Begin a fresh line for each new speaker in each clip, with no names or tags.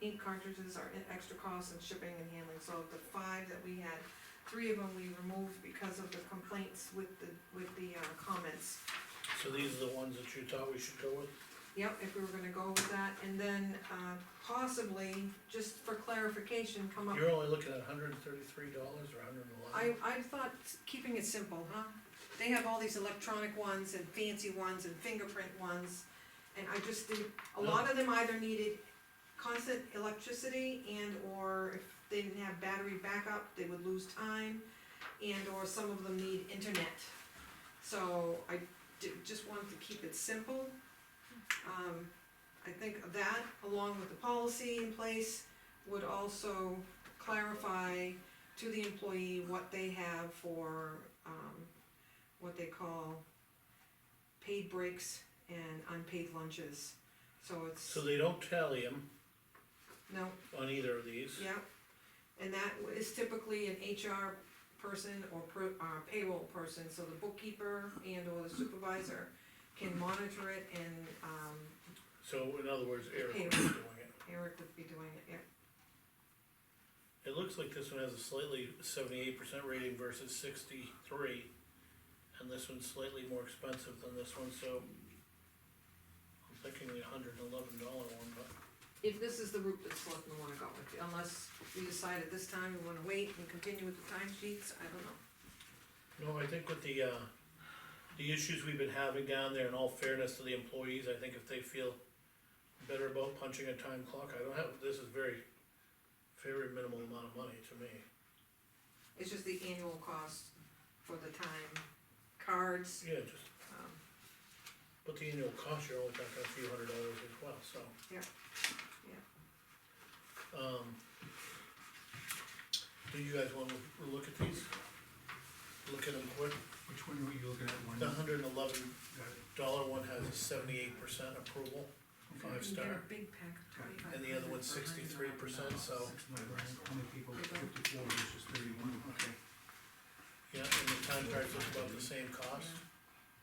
ink cartridges are an extra cost in shipping and handling, so of the five that we had, three of them we removed because of the complaints with the, with the, uh, comments.
So these are the ones that you thought we should go with?
Yep, if we were gonna go with that, and then, uh, possibly, just for clarification, come up.
You're only looking at hundred and thirty-three dollars or hundred and
I,
eleven?
I thought keeping it simple, huh? They have all these electronic ones and fancy ones and fingerprint ones, and I just did, a lot of them either needed constant electricity and or if they didn't have battery backup, they would lose time, and or some of them need internet. So I di- just wanted to keep it simple. Um, I think that, along with the policy in place, would also clarify to the employee what they have for, um, what they call paid breaks and unpaid lunches, so it's.
So they don't tally them
No,
on either of these?
yeah, and that is typically an HR person or pro, uh, payroll person, so the bookkeeper and or the supervisor can monitor it and, um,
So in other words, Eric
Payroll.
was doing it.
Eric would be doing it, yeah.
It looks like this one has a slightly seventy-eight percent rating versus sixty-three. And this one's slightly more expensive than this one, so I'm thinking the hundred and eleven dollar one, but
If this is the route that selectmen wanna go with, unless we decide at this time we wanna wait and continue with the time sheets, I don't know.
No, I think with the, uh, the issues we've been having down there, in all fairness to the employees, I think if they feel better about punching a time clock, I don't have, this is very, very minimal amount of money to me.
It's just the annual cost for the time, cards,
Yeah, just,
um,
but the annual cost, you're only talking a few hundred dollars as well, so.
Yeah,
Um, do you guys wanna look at these? Look at them quick,
Which one were you looking at, one?
the hundred and eleven
Got it.
dollar one has a seventy-eight percent approval,
Okay.
you get
five
a
star,
big pack of twenty-five.
and the other one's sixty-three percent, so.
Six, nine, how many people, fifty-four versus thirty-one, okay.
Yeah, and the time cards look about the same cost,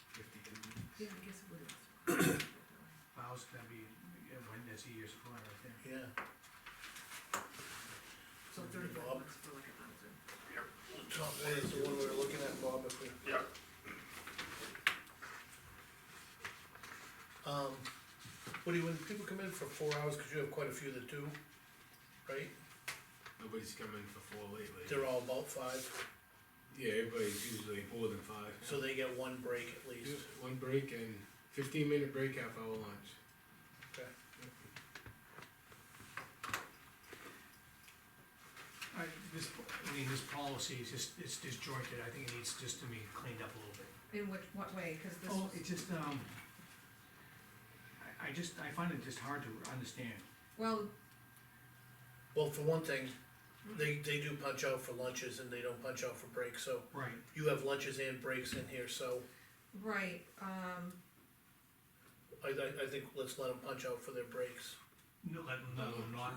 Fifty-two.
Yeah, I guess it would.
Vows, that'd be, yeah, one, that's a year's supply right there.
yeah.
So thirty bucks for like a thousand.
The top one is the one we were looking at, Bob, if we.
Yep.
Um, Woody, when people come in for four hours, cause you have quite a few that do, right?
Nobody's come in for four lately.
They're all about five,
Yeah, everybody's usually more than five.
so they get one break at least,
Just one break and fifteen minute break, half hour lunch.
okay?
I, this, I mean, this policy is just, it's disjointed, I think it needs just to be cleaned up a little bit.
In which, what way, cause this
Oh,
was,
it's just, um, I, I just, I find it just hard to understand.
well,
Well, for one thing, they, they do punch out for lunches and they don't punch out for breaks, so
Right.
you have lunches and breaks in here, so
right, um,
I, I, I think let's let them punch out for their breaks.
No, let, no, not,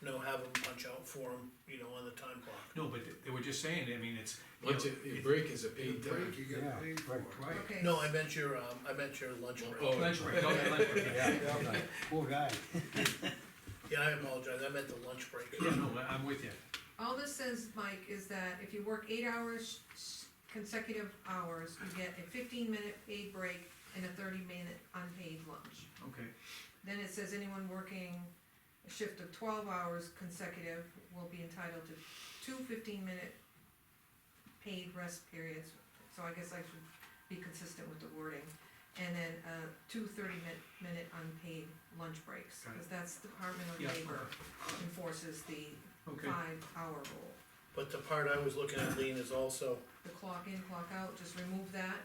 No, have them punch out for them, you know, on the time clock.
no, but they were just saying, I mean, it's. you
Lunch,
know,
i-
it-
break is a paid
Break,
time.
you get paid for it.
Right,
okay.
No, I meant your, um, I meant your lunch break.
Oh.
Lunch break, okay, lunch break, yeah.
yeah, yeah, poor guy.
Yeah, I apologize, I meant the lunch break.
Yeah, no, I- I'm with you.
All this says, Mike, is that if you work eight hours, s- consecutive hours, you get a fifteen minute paid break and a thirty minute unpaid lunch.
Okay,
Then it says anyone working a shift of twelve hours consecutive will be entitled to two 15 minute paid rest periods, so I guess I should be consistent with the wording. And then, uh, two 30 minute, minute unpaid lunch breaks,
Got it.
cause that's Department of
yeah,
Labor enforces the
okay,
five hour rule.
But the part I was looking at, Lean, is also,
The clock in, clock out, just remove that,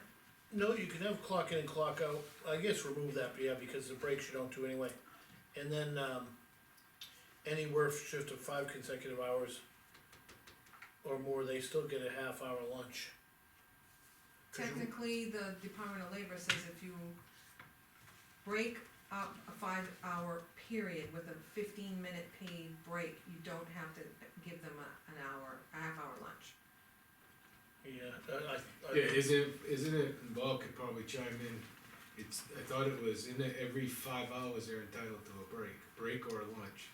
no, you can have clock in and clock out, I guess remove that, yeah, because the breaks you don't do anyway. And then, um, any work shift of five consecutive hours or more, they still get a half hour lunch. 'Cause you-
Technically, the Department of Labor says if you break up a five-hour period with a fifteen-minute paid break, you don't have to give them a, an hour, a half-hour lunch.
Yeah, I, I- I.
Yeah, isn't, isn't it, Bob could probably chime in. It's, I thought it was in it every five hours they're entitled to a break, break or a lunch.